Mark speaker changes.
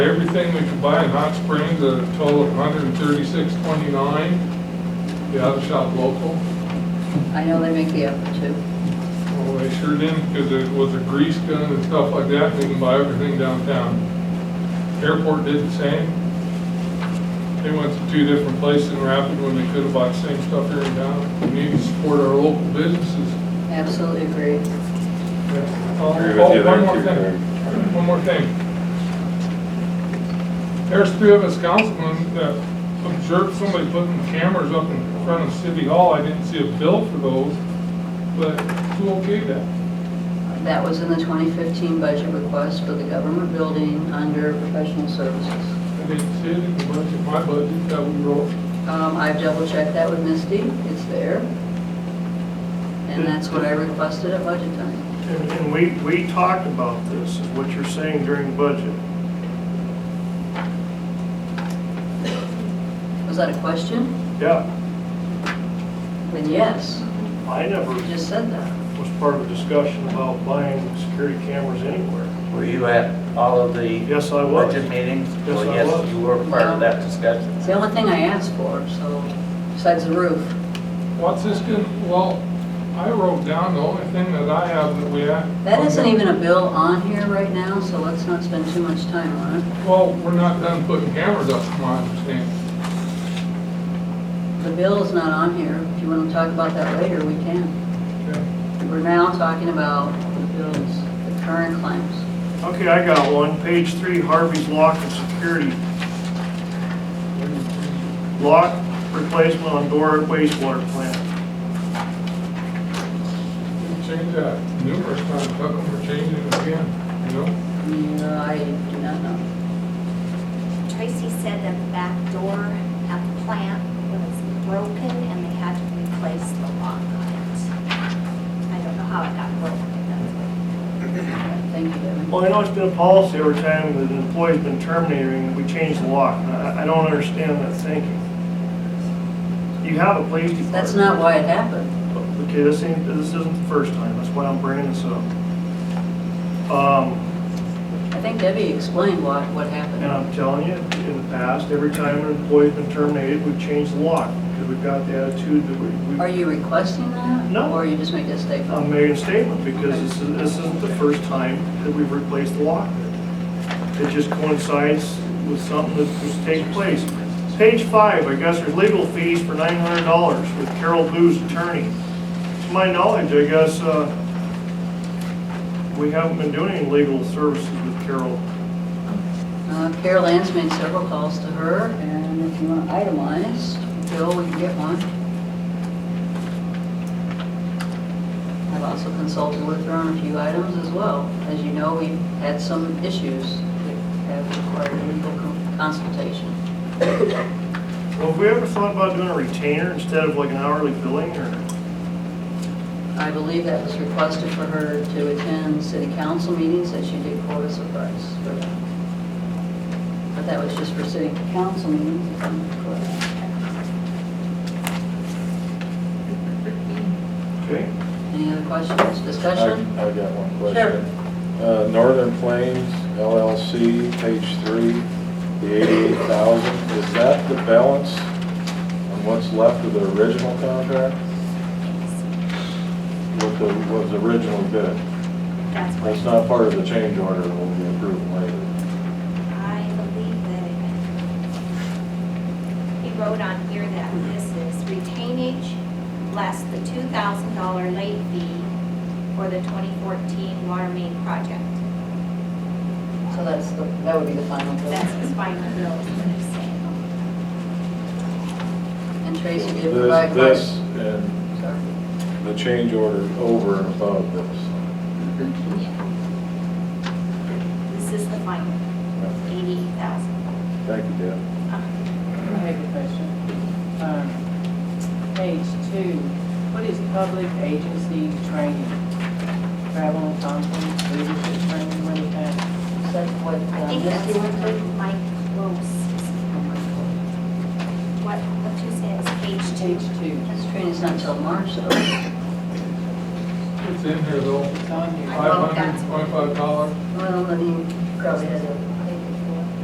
Speaker 1: everything we could buy in Hot Springs at a total of hundred and thirty-six twenty-nine, the auto shop local.
Speaker 2: I know they make the effort too.
Speaker 1: Well, they sure didn't, because it was a grease gun and stuff like that, they can buy everything downtown. Airport did the same. They went to two different places in Rapid when they could have bought the same stuff here in town. We need to support our local businesses.
Speaker 2: Absolutely agree.
Speaker 1: Oh,
Speaker 3: Agree with
Speaker 1: oh,
Speaker 3: you
Speaker 1: One
Speaker 3: there,
Speaker 1: more
Speaker 3: too, Terry.
Speaker 1: thing, one more thing. There's three of us councilmen that observed somebody putting cameras up in front of City Hall. I didn't see a bill for those, but who okayed that?
Speaker 2: That was in the 2015 budget request for the government building under professional services.
Speaker 1: I didn't see it in the budget, my budget that we wrote.
Speaker 2: Um, I've double checked that with Misty, it's there. And that's what I requested at budget time.
Speaker 4: And, and we, we talked about this, is what you're saying during budget.
Speaker 2: Was that a question?
Speaker 4: Yeah,
Speaker 2: Then yes,
Speaker 4: I never
Speaker 2: you just said that.
Speaker 4: was part of a discussion about buying security cameras anywhere.
Speaker 5: Were you at all of the?
Speaker 4: Yes, I was.
Speaker 5: Budget meetings?
Speaker 4: Yes,
Speaker 5: Well,
Speaker 4: I was.
Speaker 5: Yes, you were part of that discussion.
Speaker 2: It's the only thing I asked for, so, besides the roof.
Speaker 1: What's this gonna, well, I wrote down the only thing that I have that we have.
Speaker 2: That isn't even a bill on here right now, so let's not spend too much time on it.
Speaker 1: Well, we're not done putting cameras up, from my understanding.
Speaker 2: The bill is not on here. If you want to talk about that later, we can.
Speaker 1: Okay.
Speaker 2: We're now talking about the bills, the current claims.
Speaker 4: Okay, I got one, page three, Harvey's lock and security. Lock replacement on door at wastewater plant.
Speaker 1: We changed that numerous times, how come we're changing it again, you know?
Speaker 2: No, I do not know.
Speaker 6: Tracy said that the back door at the plant was broken and they had to replace the lock on it. I don't know how it got broken, but that's what.
Speaker 2: Thank you, Devin.
Speaker 4: Well, I know it's been a policy every time that an employee's been terminating, we change the lock. And I, I don't understand that thinking. You have a police department.
Speaker 2: That's not why it happened.
Speaker 4: Okay, this ain't, this isn't the first time, that's why I'm bringing this up. Um,
Speaker 2: I think Debbie explained what, what
Speaker 4: and
Speaker 2: happened.
Speaker 4: I'm telling you, in the past, every time an employee's been terminated, we've changed the lock, because we've got the attitude that we,
Speaker 2: Are
Speaker 4: we,
Speaker 2: you requesting that?
Speaker 4: No. Um,
Speaker 2: Or you just made a statement?
Speaker 4: I'm making a statement, because this, is- this isn't the first time that we've replaced the lock. It just coincides with something that was taking place. Page five, I guess there's legal fees for nine hundred dollars with Carol Boo's attorney. To my knowledge, I guess, uh, we haven't been doing any legal services with Carol.
Speaker 2: Uh, Carol Ann's made several calls to her, and if you want itemized, Bill, we can get one. I've also consulted with her on a few items as well. As you know, we've had some issues that have required legal con- consultation.
Speaker 4: Well, have we ever thought about doing a retainer instead of like an hourly billing or?
Speaker 2: I believe that was requested for her to attend city council meetings, that she did quote us a price for that. But that was just for city council meetings, if I'm correct.
Speaker 4: Okay.
Speaker 2: Any other questions, discussion?
Speaker 3: I- I've got one question. Uh, Northern Plains LLC, page three, the eighty-eight thousand, is that the balance on what's left of the original contract? What the, was originally bid?
Speaker 6: That's
Speaker 3: That's
Speaker 6: what
Speaker 3: not part of the change order, that will be approved later.
Speaker 6: I believe that he wrote on here that this is retainage less the two thousand dollar late fee for the twenty fourteen water main project.
Speaker 2: So that's, the that would be the final
Speaker 6: That's
Speaker 2: bill.
Speaker 6: his final bill, is what he's saying.
Speaker 2: And Tracy did provide.
Speaker 3: This, this and
Speaker 2: Sorry.
Speaker 3: the change order over and above this.
Speaker 6: Yeah. This is the final, eighty thousand. Um,
Speaker 3: Thank you, Deb.
Speaker 7: I have a question. Um, Page two, what is public agency training? Travel, conference, leadership training, what is that?
Speaker 2: Is that what
Speaker 6: I
Speaker 2: uh,
Speaker 6: think that's
Speaker 2: Misty went through?
Speaker 6: Mike Close.
Speaker 2: Oh,
Speaker 6: What, what you said is page two.
Speaker 7: Page two,
Speaker 2: This training's not till March, so
Speaker 1: It's in here though,
Speaker 7: it's on here.
Speaker 6: I
Speaker 1: five
Speaker 6: love that.
Speaker 1: hundred twenty-five dollars.
Speaker 2: well, then he probably has a